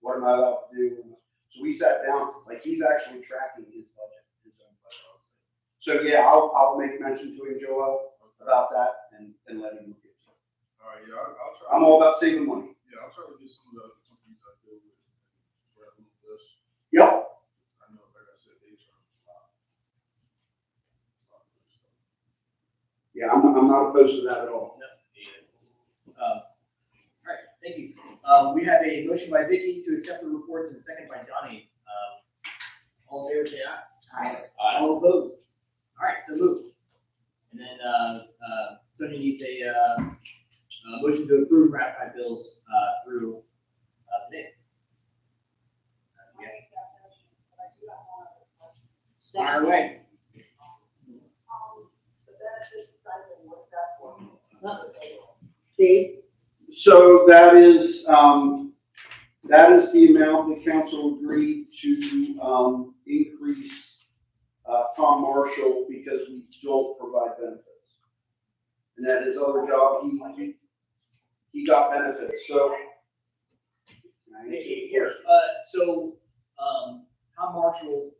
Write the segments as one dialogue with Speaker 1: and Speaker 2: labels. Speaker 1: what am I allowed to do? So we sat down, like, he's actually tracking his budget, his own budget. honestly. So, yeah, I'll, I'll make mention to him, Joel, about that and, and let him look at it.
Speaker 2: All right, yeah, I'll, I'll try.
Speaker 1: I'm all about saving money.
Speaker 2: Yeah, I'll try to get some of the other companies I deal with, grab them this.
Speaker 1: Yep,
Speaker 2: I know, like I said, they charge a lot. A lot of this stuff.
Speaker 1: yeah, I'm, I'm not opposed to that at all.
Speaker 3: Um, All right, thank you. Um, We have a motion by Vicky to accept the reports and a second by Donnie. Um, All in favor, say aye.
Speaker 4: Aye.
Speaker 3: All opposed? All right, so move. And then uh, uh, Sonia needs a uh, a motion to approve and ratify bills uh, through uh, today. Uh, we have- Fire away.
Speaker 4: Dave?
Speaker 1: So that is, um, that is the amount the council agreed to, um, increase, uh, Tom Marshall because we don't provide benefits. And that his other job, he, he, he got benefits, so. Can I answer the
Speaker 3: Here,
Speaker 1: question?
Speaker 3: uh, so, um, Tom Marshall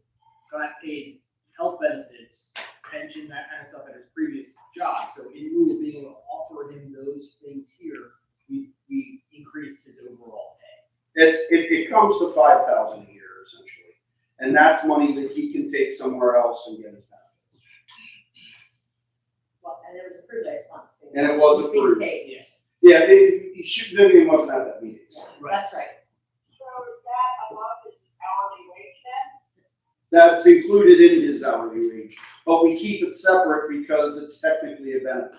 Speaker 3: got paid health benefits, pension, that kind of stuff at his previous job, so in lieu of being able to offer him those things here, we, we increased his overall pay.
Speaker 1: It's, it, it comes to five thousand a year essentially, and that's money that he can take somewhere else and get his benefits.
Speaker 4: Well, and it was approved last month.
Speaker 1: And it was
Speaker 4: It's being
Speaker 1: approved.
Speaker 4: paid.
Speaker 1: Yeah, it, it, should- Vivian wasn't at that meeting, so.
Speaker 4: Yeah, That's right.
Speaker 5: So is that above his hourly wage then?
Speaker 1: That's included in his hourly wage, but we keep it separate because it's technically a benefit.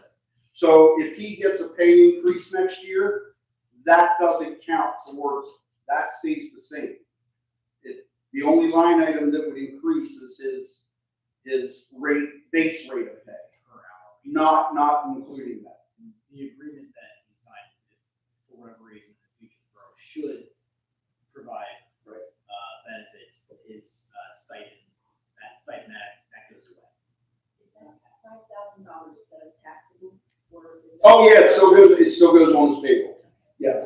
Speaker 1: So if he gets a pay increase next year, that doesn't count towards, it. that stays the same. It, the only line item that would increase is his, his rate, base rate of pay,
Speaker 3: Per hour.
Speaker 1: not, not including that.
Speaker 3: The agreement that he signed, if for whatever reason, the future borough should provide.
Speaker 1: Right.
Speaker 3: Uh, benefits, his uh, stipend, that stipend, that, that goes away.
Speaker 4: Is that five thousand dollars instead of taxable or is? that-
Speaker 1: Oh, yeah, it still goes, it still goes on his payroll, yes.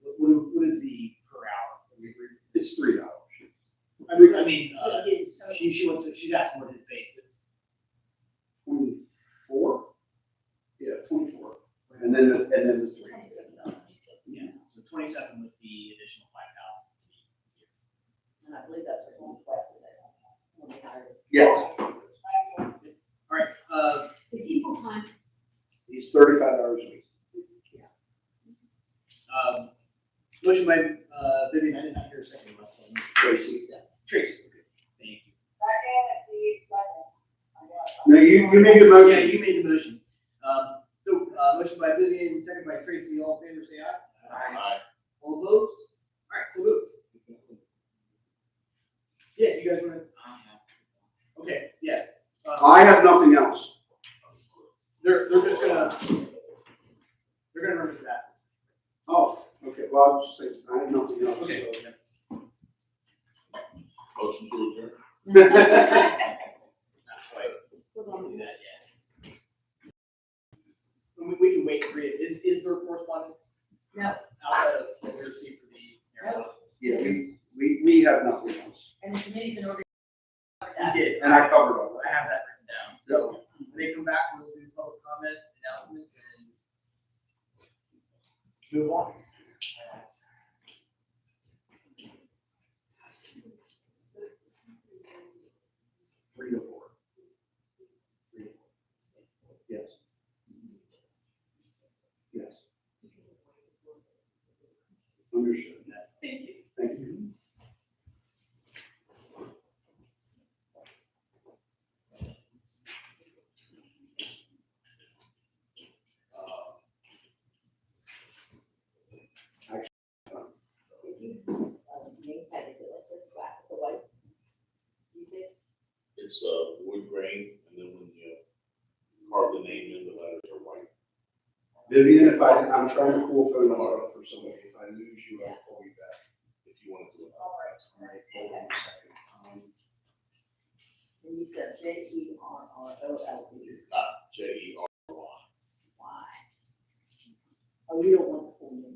Speaker 3: What, what- what is the per hour? Have we agreed?
Speaker 1: It's three dollars.
Speaker 3: I mean, I mean, uh,
Speaker 4: But it is, so
Speaker 3: she, she wants, to- she's asking what his base is.
Speaker 1: Twenty-four? Yeah, twenty-four. And then, the- and then the
Speaker 4: it's
Speaker 1: three.
Speaker 4: twenty-seven dollars.
Speaker 3: Yeah, so twenty-seven with the additional five thousand.
Speaker 4: And I believe that's what we requested last month. when we hired.
Speaker 1: Yes.
Speaker 3: All right, uh,
Speaker 4: Is he full time?
Speaker 1: He's thirty-five hours a week.
Speaker 3: um, motion by, uh, Vivian, I did not hear a second, but, um,
Speaker 1: Tracy.
Speaker 3: Tracy, okay, thank you.
Speaker 5: Second, if he, second. I guess.
Speaker 1: No, you, you made the
Speaker 3: Yeah,
Speaker 1: motion.
Speaker 3: you made the motion. Um, so, uh, motion by Vivian, second by Tracy, all in favor, say aye.
Speaker 2: Aye.
Speaker 3: All opposed? All right, so moved. Yeah, you guys wanna? Ah, Okay, yes. Uh,
Speaker 1: I have nothing else.
Speaker 3: They're, they're just gonna, they're gonna remember that.
Speaker 1: Oh, okay, well, I'll just say, I have nothing else.
Speaker 2: Motion to adjourn.
Speaker 3: Not quite.
Speaker 4: Hold
Speaker 3: We
Speaker 4: on.
Speaker 3: can do that yet. And We, we can wait for it. Is, is there correspondence?
Speaker 4: No.
Speaker 3: Outside of what we received for the air
Speaker 4: No.
Speaker 3: office?
Speaker 1: Yeah, we, we, we have nothing else.
Speaker 4: And the committee's in order.
Speaker 3: We did.
Speaker 1: And I covered all
Speaker 3: I have that written down. So when they come back, we'll do public comment announcements and move on.
Speaker 1: Three to four. Yes. Yes, understood. Thank you.
Speaker 4: If you use, uh, name tag, is it like this black or white? You did?
Speaker 6: It's uh, wood grain, and then when you carve the name in, the letters are white.
Speaker 1: Vivian, if I, I'm trying to call phone tomorrow for somebody. If I lose you, I'll call you back.
Speaker 6: If you want to do it.
Speaker 4: All right.
Speaker 1: All right, hold on a second. Um,
Speaker 4: And you said J E R R O L E
Speaker 6: Not J E R Y.
Speaker 4: Y. Oh, you don't want the